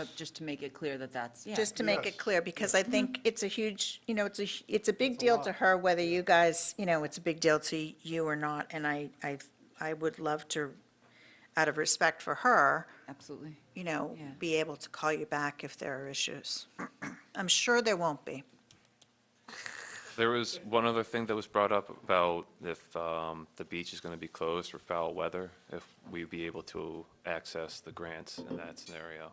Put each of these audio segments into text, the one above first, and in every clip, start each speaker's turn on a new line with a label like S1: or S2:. S1: Uh, Just to make it clear that that's, yeah.
S2: just to make
S3: Yes.
S2: it clear, because I think it's a huge, you know, it's a, hu- it's a big deal to her whether you guys, you know, it's a big deal to you or not, and I, I, I would love to, out of respect for her,
S1: Absolutely.
S2: you know,
S1: Yeah.
S2: be able to call you back if there are issues. I'm sure there won't be.
S4: There was one other thing that was brought up about if um, the beach is going to be closed for foul weather, if we'd be able to access the grants in that scenario.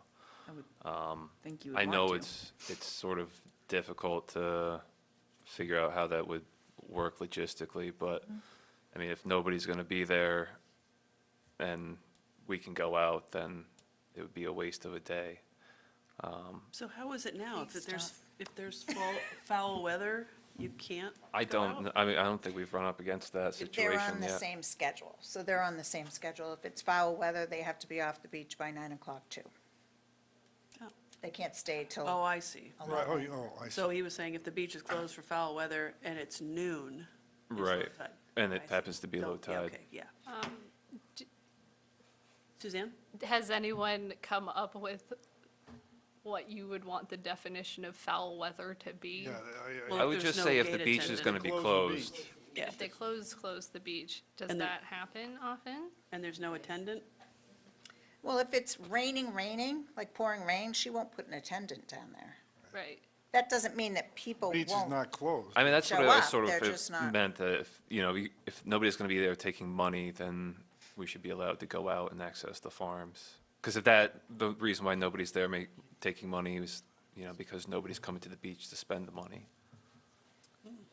S1: I would think you would
S4: I
S1: want
S4: know
S1: to.
S4: it's, it's sort of difficult to figure out how that would work logistically, but, I mean, if nobody's going to be there and we can go out, then it would be a waste of a day.
S5: So how is it now? If there's, if there's foul, foul weather, you can't?
S4: I
S5: go out?
S4: don't, kn- I mean, I don't think we've run up against that situation
S2: They're
S4: yet.
S2: on the same schedule, so they're on the same schedule. If it's foul weather, they have to be off the beach by nine o'clock too.
S5: Oh.
S2: They can't stay
S5: Oh,
S2: till
S5: I see.
S3: Right, oh, you- oh, I see.
S5: So he was saying if the beach is closed for foul weather and it's noon. it's low
S4: Right.
S5: tide.
S4: And
S5: I
S4: it
S5: see.
S4: happens to be
S5: Don't-
S4: low
S5: yeah,
S4: tide.
S5: okay, Yeah.
S6: Um, d-
S5: Suzanne?
S6: Has anyone come up with what you would want the definition of foul weather to be?
S3: Yeah, I- I-
S5: Well,
S4: I
S5: if
S4: would
S5: there's
S4: just
S5: no
S4: say if the
S5: gate
S4: beach is going to
S5: attendant-
S4: be
S3: Close the beach.
S4: closed,
S5: Yeah,
S6: If they close, close the beach. Does
S5: And the-
S6: that happen often?
S5: and there's no attendant?
S2: Well, if it's raining, raining, like pouring rain, she won't put an attendant down there.
S6: Right.
S2: That doesn't mean that
S6: Oh,
S2: people
S3: Beach is
S2: won't.
S3: not closed.
S4: I mean, that's what
S2: show
S4: I
S2: up,
S4: sort
S2: they're
S4: of
S2: just not-
S4: if- meant, that if, you know, you- if nobody's going to be there taking money, then we should be allowed to go out and access the farms. Because if that, the reason why nobody's there ma- taking money is, you know, because nobody's coming to the beach to spend the money.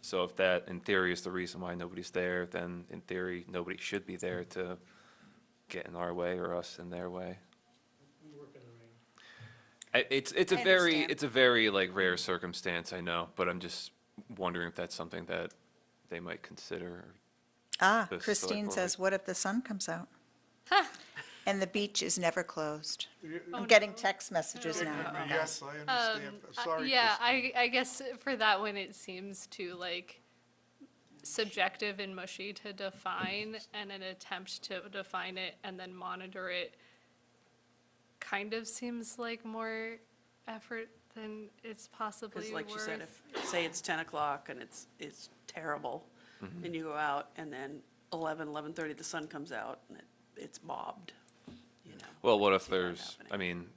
S4: So if that, in theory, is the reason why nobody's there, then in theory, nobody should be there to get in our way or us in their way. I- It's, it's a
S2: I
S4: very,
S2: understand.
S4: it's a very like rare circumstance, I know, but I'm just wondering if that's something that they might consider.
S2: Ah,
S4: the select
S2: Christine
S4: board
S2: says,
S4: would-
S2: what if the sun comes out? And the beach is never closed.
S6: Oh,
S2: I'm getting text messages now. about that.
S3: Yes, I understand.
S6: Um, I-
S3: Sorry,
S6: Yeah,
S3: Christine.
S6: I, I guess for that one, it seems too like subjective and mushy to define and an attempt to define it and then monitor it kind of seems like more effort than it's possibly
S5: Because
S6: worth.
S5: like you said, if, say it's 10 o'clock and it's, it's terrible,
S4: Mm-hmm.
S5: and you go out, and then 11, 11:30, the sun comes out, and it, it's mobbed, you know?
S4: Well, what if
S5: see that
S4: there's, I
S5: happening.
S4: mean,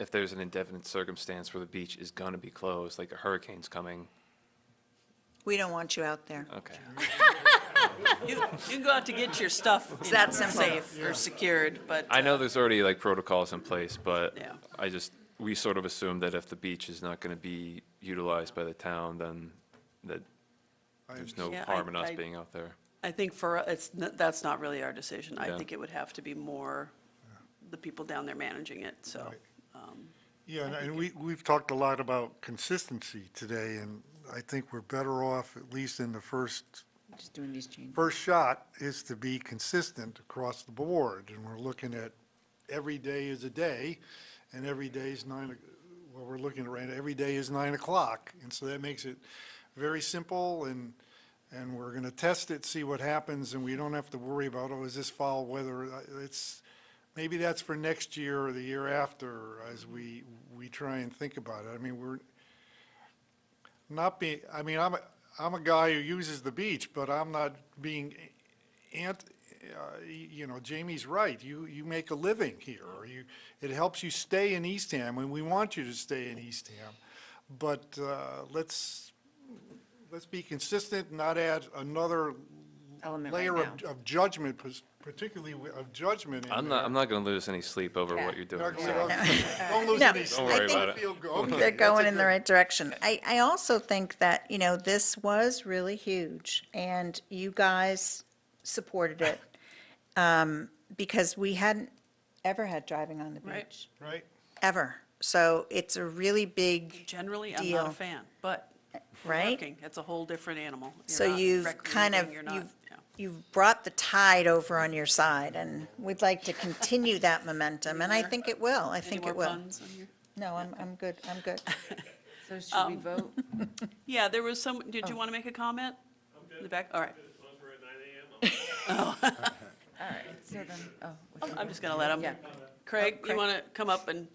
S4: if there's an indefinite circumstance where the beach is gonna be closed, like a hurricane's coming,
S2: We don't want you out there.
S4: okay.
S5: You, you can go out to get your stuff, you
S2: that
S5: know,
S2: simple.
S5: safe or secured, but.
S4: I know
S5: uh,
S4: there's already like protocols in place, but
S5: Yeah.
S4: I just, we sort of assume that if the beach is not gonna be utilized by the town, then that
S3: I
S4: there's no
S5: Yeah, I-
S4: harm in us
S5: I-
S4: being out there.
S5: I think for, u- it's, n- that's not really our decision. I
S4: Yeah.
S5: think it would have to be more the people down there managing it, so.
S3: Right. Yeah, and- and we, we've talked a lot about consistency today, and I think we're better off, at least in the first,
S1: Just doing these changes.
S3: first shot, is to be consistent across the board. And we're looking at, every day is a day, and every day is nine, o- well, we're looking at right, now, every day is nine o'clock. And so that makes it very simple, and, and we're going to test it, see what happens, and we don't have to worry about, oh, is this foul weather? I- It's, maybe that's for next year or the year after, as we, we try and think about it. I mean, we're not being, I mean, I'm, a am a guy who uses the beach, but I'm not being ant, uh, you know, Jamie's right. You, you make a living here, or you, it helps you stay in Eastham, and we want you to stay in Eastham. But uh, let's, let's be consistent, not add another
S1: Element right
S3: layer of
S1: now.
S3: of judgment, pers- particularly wi- of judgment in
S4: I'm not,
S3: there.
S4: I'm not gonna lose any sleep over
S2: Yeah.
S4: what you're doing.
S3: Not gonna
S4: so-
S3: lose- Don't lose
S2: No,
S3: any sleep.
S4: worry about it.
S3: Feel go- okay,
S2: They're
S3: that's a
S2: going in the
S3: good-
S2: right direction. I, I also think that, you know, this was really huge, and you guys supported it, um, because we hadn't ever had driving on the
S5: Right.
S2: beach,
S3: Right?
S2: ever. So it's a really big,
S5: Generally, I'm not
S2: Deal.
S5: a fan, but
S2: right?
S5: parking, that's a whole different animal. You're
S2: So
S5: not
S2: you've
S5: recreating,
S2: kind of,
S5: you're not-
S2: you've,
S5: yeah.
S2: you've brought the tide over on your side, and we'd like to continue that momentum, and I
S5: Any more-
S2: think it will, I
S5: Any
S2: think
S5: more
S2: it will.
S5: puns on your-
S2: No, I'm, I'm good, I'm good.
S1: So should
S3: Um,
S1: we vote?
S5: Yeah, there was some, did
S2: Oh.
S5: you want to make a comment? In the back, all right.
S1: All right, so then, oh. uh,
S5: I'm just going to let
S1: Yeah.
S5: Um, him. Craig, you
S1: Craig.
S2: Oh,
S5: want to come up and